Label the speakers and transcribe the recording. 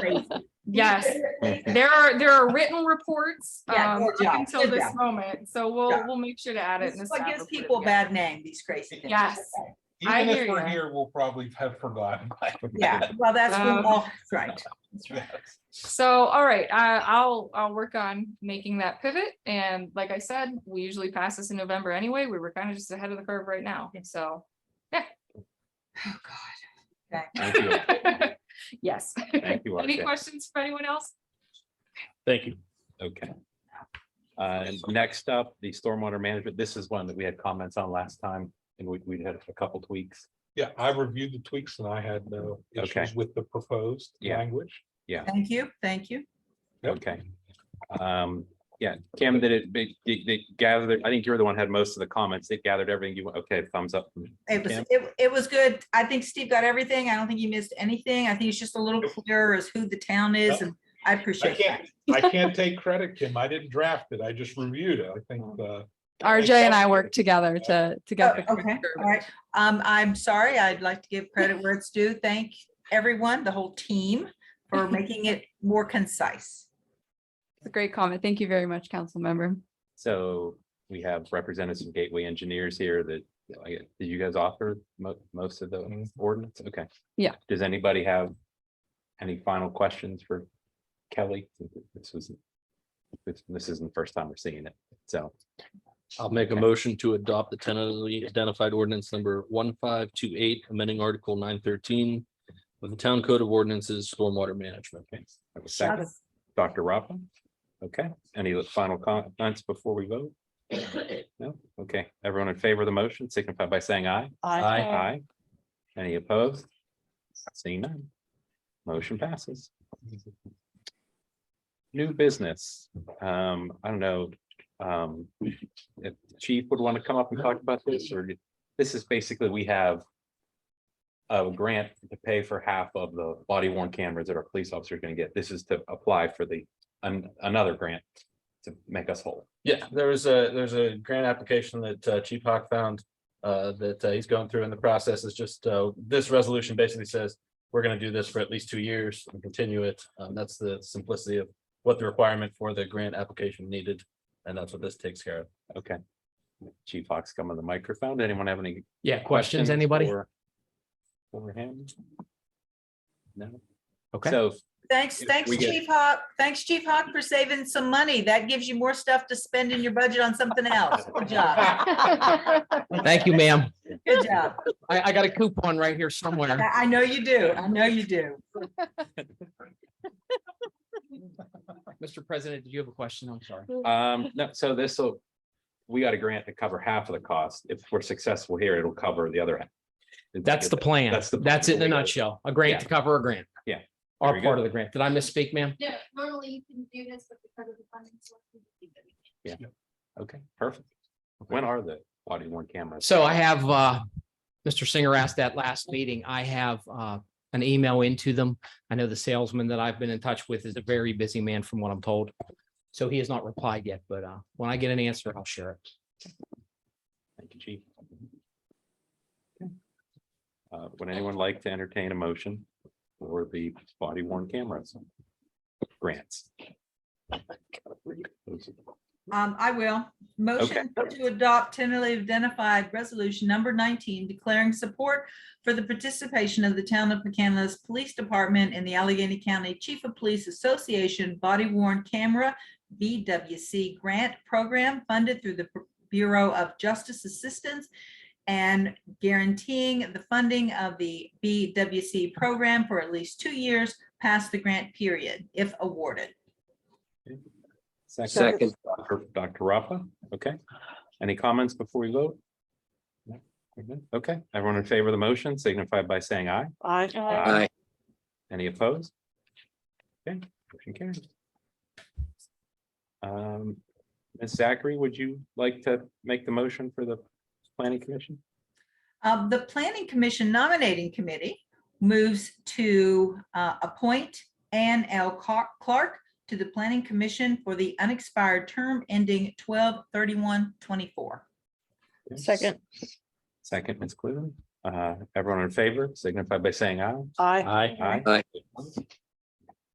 Speaker 1: crazy.
Speaker 2: Yes, there are, there are written reports,
Speaker 1: Yeah,
Speaker 2: um,
Speaker 1: good
Speaker 2: up
Speaker 1: job,
Speaker 2: until
Speaker 1: good
Speaker 2: this
Speaker 1: job.
Speaker 2: moment, so we'll,
Speaker 1: job.
Speaker 2: we'll make sure to add it.
Speaker 1: This
Speaker 2: in
Speaker 1: is
Speaker 2: the
Speaker 1: what
Speaker 2: staff
Speaker 1: gives
Speaker 2: report,
Speaker 1: people a
Speaker 2: yeah.
Speaker 1: bad name, these crazy things.
Speaker 2: Yes. I
Speaker 3: Even if
Speaker 2: hear
Speaker 3: we're
Speaker 2: ya.
Speaker 3: here, we'll probably have forgotten. by then.
Speaker 1: Yeah, well, that's,
Speaker 2: Um,
Speaker 1: oh, right.
Speaker 3: That's right.
Speaker 2: So, all right, I, I'll, I'll work on making that pivot. And like I said, we usually pass this in November anyway. We were kind of just ahead of the curve right now, so.
Speaker 1: Oh, God. Okay.
Speaker 4: Thank you.
Speaker 2: Yes.
Speaker 4: Thank you,
Speaker 2: Any
Speaker 4: RJ.
Speaker 2: questions for anyone else?
Speaker 4: Thank you. Okay. Uh, and next up, the stormwater management. This is one that we had comments on last time and we, we had a couple tweaks.
Speaker 3: Yeah, I reviewed the tweaks and I had no
Speaker 4: Okay.
Speaker 3: issues with the proposed
Speaker 4: Yeah.
Speaker 3: language.
Speaker 1: Thank you, thank you.
Speaker 3: Yep.
Speaker 4: Okay. Um, yeah, Kim, did it, they, they- they gathered, I think you're the one who had most of the comments. They gathered everything you, want. okay, thumbs up.
Speaker 1: It was,
Speaker 4: Yeah.
Speaker 1: it, it was good. I think Steve got everything. I don't think he missed anything. I think it's just a little clearer as who the town is and I
Speaker 3: I
Speaker 1: appreciate that.
Speaker 3: can't, I can't take credit, Kim. I didn't draft it. I just reviewed it. I think,
Speaker 2: Oh.
Speaker 3: uh,
Speaker 5: RJ and I worked together to, to
Speaker 1: Oh,
Speaker 5: get. the
Speaker 1: Okay, all right. Um, I'm sorry. I'd like to give credit where it's due. Thank everyone, the whole team for making it more concise.
Speaker 5: It's a great comment. Thank you very much, council member.
Speaker 4: So we have representatives from Gateway Engineers here that, I guess, did you guys author mo- most of the
Speaker 3: Mhm.
Speaker 4: ordinance? Okay.
Speaker 5: Yeah.
Speaker 4: Does anybody have any final questions for Kelly? This was, this, this isn't the first time we're seeing it, so.
Speaker 6: I'll make a
Speaker 4: Okay.
Speaker 6: motion to adopt the tentatively identified ordinance number one five two eight, amending article nine thirteen of the town code of ordinances, stormwater management.
Speaker 4: okay. I will second.
Speaker 1: That's-
Speaker 4: Dr. Robin? Okay, any final comments before we vote? No, okay, everyone in favor of the motion signify by saying aye.
Speaker 6: Aye.
Speaker 4: Aye. Any opposed? Seeing none. Motion passes. New business. Um, I don't know. Um, if chief would want to come up and talk about this or this is basically, we have a grant to pay for half of the body worn cameras that our police officers are going to get. This is to apply for the an- another grant to make us whole.
Speaker 7: Yeah, there was a, there's a grant application that uh, Chief Hawk found uh, that uh, he's going through in the process is just, uh, this resolution basically says we're gonna do this for at least two years and continue it. Um, That's the simplicity of what the requirement for the grant application needed. And that's what this takes care of.
Speaker 4: Okay. Chief Fox, come on the microphone. Anyone have any
Speaker 8: Yeah, questions, anybody?
Speaker 4: for- For him? No?
Speaker 8: Okay.
Speaker 4: So,
Speaker 1: Thanks,
Speaker 4: If
Speaker 1: thanks
Speaker 4: we get-
Speaker 1: Chief Hawk. Thanks Chief Hawk for saving some money. That gives you more stuff to spend in your budget on something else. Good job,
Speaker 8: Thank you, ma'am.
Speaker 1: good job.
Speaker 8: I, I got a coupon right here somewhere.
Speaker 1: I I know you do. I know you do.
Speaker 8: Mr. President, did you have a question? I'm sorry.
Speaker 4: um, no, so this will, we got a grant to cover half of the cost. If we're successful here, it'll cover the other. half.
Speaker 8: That's the plan.
Speaker 4: That's the plan.
Speaker 8: That's it in a
Speaker 4: Yeah.
Speaker 8: nutshell. A grant to cover a grant.
Speaker 4: Yeah. There
Speaker 8: Our
Speaker 4: you
Speaker 8: part
Speaker 4: go.
Speaker 8: of the grant. Did I misspeak, ma'am?
Speaker 9: Yeah, normally you can do this, but because of the funding.
Speaker 4: Okay, perfect. When are the body worn cameras?
Speaker 8: So I have, uh, Mr. Singer asked that last meeting. I have, uh, an email into them. I know the salesman that I've been in touch with is a very busy man from what I'm told. So he has not replied yet, but, uh, when I get an answer, I'll share it.
Speaker 4: Thank you, Chief. Uh, would anyone like to entertain a motion for the body worn cameras? Grants.
Speaker 1: Um, I will. Motion to adopt tentatively identified resolution number nineteen declaring support for the participation of the town of McCandless Police Department in the Allegheny County Chief of Police Association Body Worn Camera BWC Grant Program funded through the Bureau of Justice Assistance and guaranteeing the funding of the BWC program for at least two years past the grant period, if awarded.
Speaker 4: Second. Dr. Dr. Rafa, okay. Any comments before we vote? No? We're good? Okay, everyone in favor of the motion signify by saying aye. Aye. Any opposed? Okay, motion carries. Um, Ms. Zachary, would you like to make the motion for the planning commission?
Speaker 1: Um, the Planning Commission nominating committee moves to uh, appoint Ann L. Car- Clark to the Planning Commission for the unexpired term ending 12 31 24
Speaker 4: Second. Second, Ms. Cleveland. Uh, everyone in favor signify by saying aye.
Speaker 6: Aye.
Speaker 4: Aye.